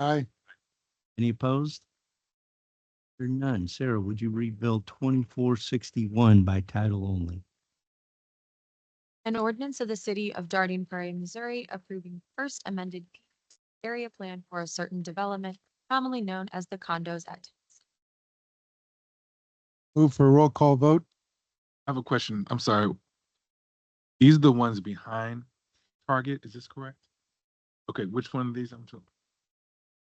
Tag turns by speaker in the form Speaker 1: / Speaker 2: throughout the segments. Speaker 1: Aye.
Speaker 2: Any opposed? There are none. Sarah, would you read Bill twenty-four sixty-one by title only?
Speaker 3: An ordinance of the city of Darting Prairie, Missouri approving first amended area plan for a certain development commonly known as the condos at.
Speaker 1: Move for a roll call vote.
Speaker 4: I have a question. I'm sorry. These are the ones behind Target, is this correct? Okay, which one of these? I'm, so-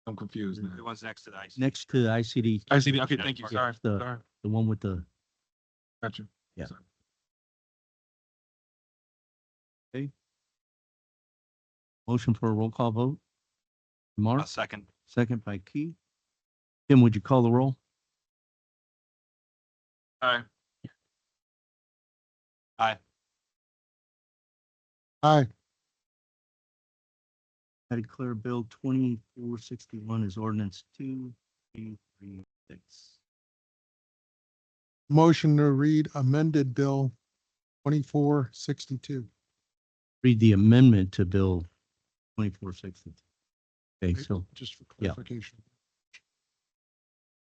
Speaker 4: I'm confused
Speaker 5: The
Speaker 4: now.
Speaker 5: ones next to the ice.
Speaker 2: Next to the ICD,
Speaker 4: I see, the- okay, thank you,
Speaker 2: Yeah,
Speaker 4: sorry,
Speaker 2: it's the-
Speaker 4: sorry,
Speaker 2: the one with the,
Speaker 4: got you.
Speaker 2: Yeah.
Speaker 4: Sorry.
Speaker 2: motion for a roll call vote?
Speaker 5: A
Speaker 2: Mark,
Speaker 5: Uh, second.
Speaker 2: second by Key. Tim, would you call the roll?
Speaker 4: Aye.
Speaker 1: Aye.
Speaker 2: I declare Bill twenty-four sixty-one is ordinance two, three, three, six.
Speaker 1: Motion to read amended bill twenty-four sixty-two.
Speaker 2: Read the amendment to Bill twenty-four sixty-two. Okay, so
Speaker 1: Just for
Speaker 2: Yeah.
Speaker 1: clarification.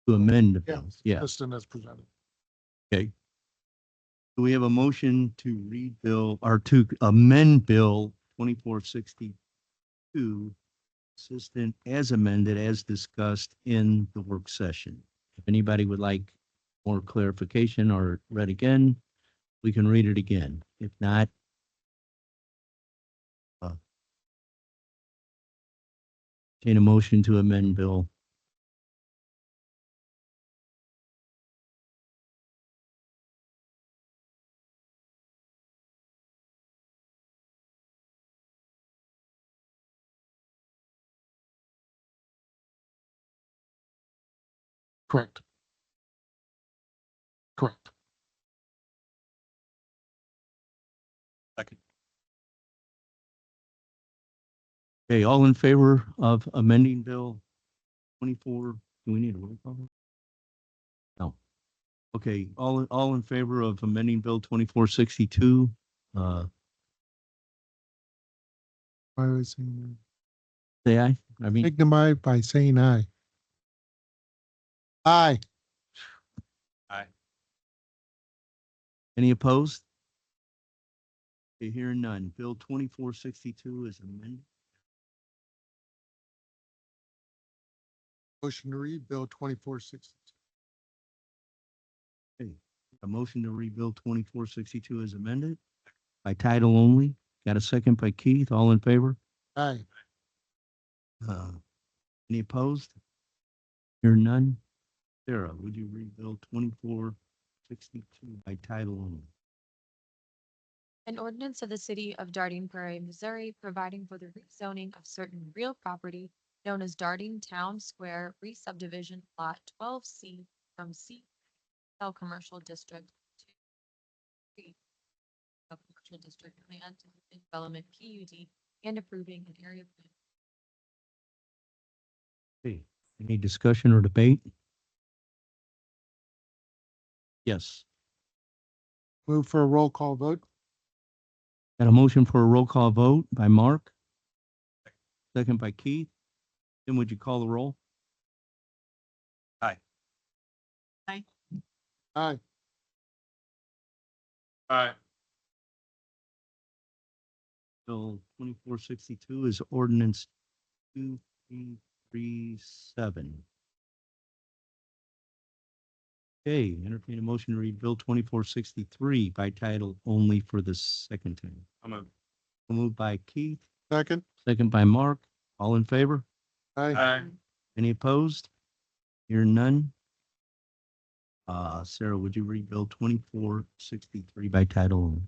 Speaker 2: to amend the
Speaker 1: Yeah.
Speaker 2: bill, yeah.
Speaker 1: Listed as presented.
Speaker 2: Do we have a motion to read Bill, or to amend Bill twenty-four sixty-two assistant as amended, as discussed in the work session? If anybody would like more clarification or read again, we can read it again. If not, uh, entertain a motion to amend Bill.
Speaker 1: Correct. Correct.
Speaker 2: Okay, all in favor of amending Bill twenty-four, do we need a roll call? No. Okay, all, all in favor of amending Bill twenty-four sixty-two, uh,
Speaker 1: I was saying,
Speaker 2: say aye? I mean,
Speaker 1: signify by saying aye. Aye.
Speaker 2: any opposed? Okay, hearing none. Bill twenty-four sixty-two is amended.
Speaker 1: Motion to read bill twenty-four sixty-two.
Speaker 2: A motion to read Bill twenty-four sixty-two is amended by title only. Got a second by Keith. All in favor?
Speaker 1: Aye.
Speaker 2: Uh, Any opposed? Hear none? Sarah, would you read Bill twenty-four sixty-two by title only?
Speaker 3: An ordinance of the city of Darting Prairie, Missouri providing for the rezoning of certain real property known as Darting Town Square re-subdivision lot twelve C from C L Commercial District to C L Commercial District Plan Development PUD and approving an area plan
Speaker 2: Hey, Any discussion or debate? Yes,
Speaker 1: Move for a roll call vote.
Speaker 2: got a motion for a roll call vote by Mark. Second by Keith. Tim, would you call the roll?
Speaker 1: Aye.
Speaker 4: Aye.
Speaker 2: Bill twenty-four sixty-two is ordinance two three three seven. Okay, entertain a motion to read Bill twenty-four sixty-three by title only for the second time.
Speaker 5: I'm a,
Speaker 2: Moved by Keith,
Speaker 1: Second.
Speaker 2: second by Mark. All in favor?
Speaker 1: Aye.
Speaker 4: Aye.
Speaker 2: Any opposed? Hear none? Uh, Sarah, would you read Bill twenty-four sixty-three by title only?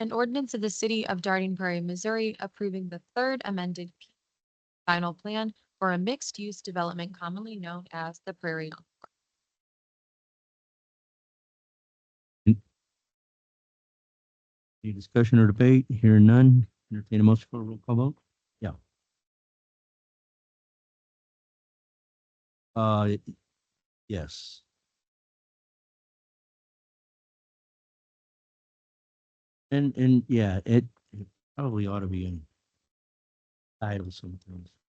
Speaker 3: An ordinance of the city of Darting Prairie, Missouri approving the third amended final plan for a mixed-use development commonly known as the Prairie. Encore.
Speaker 2: Any discussion or debate? Hear none? Entertain a motion for a roll call vote? Yeah. Uh, it- yes. And, and yeah, it it probably ought to be in title sometimes.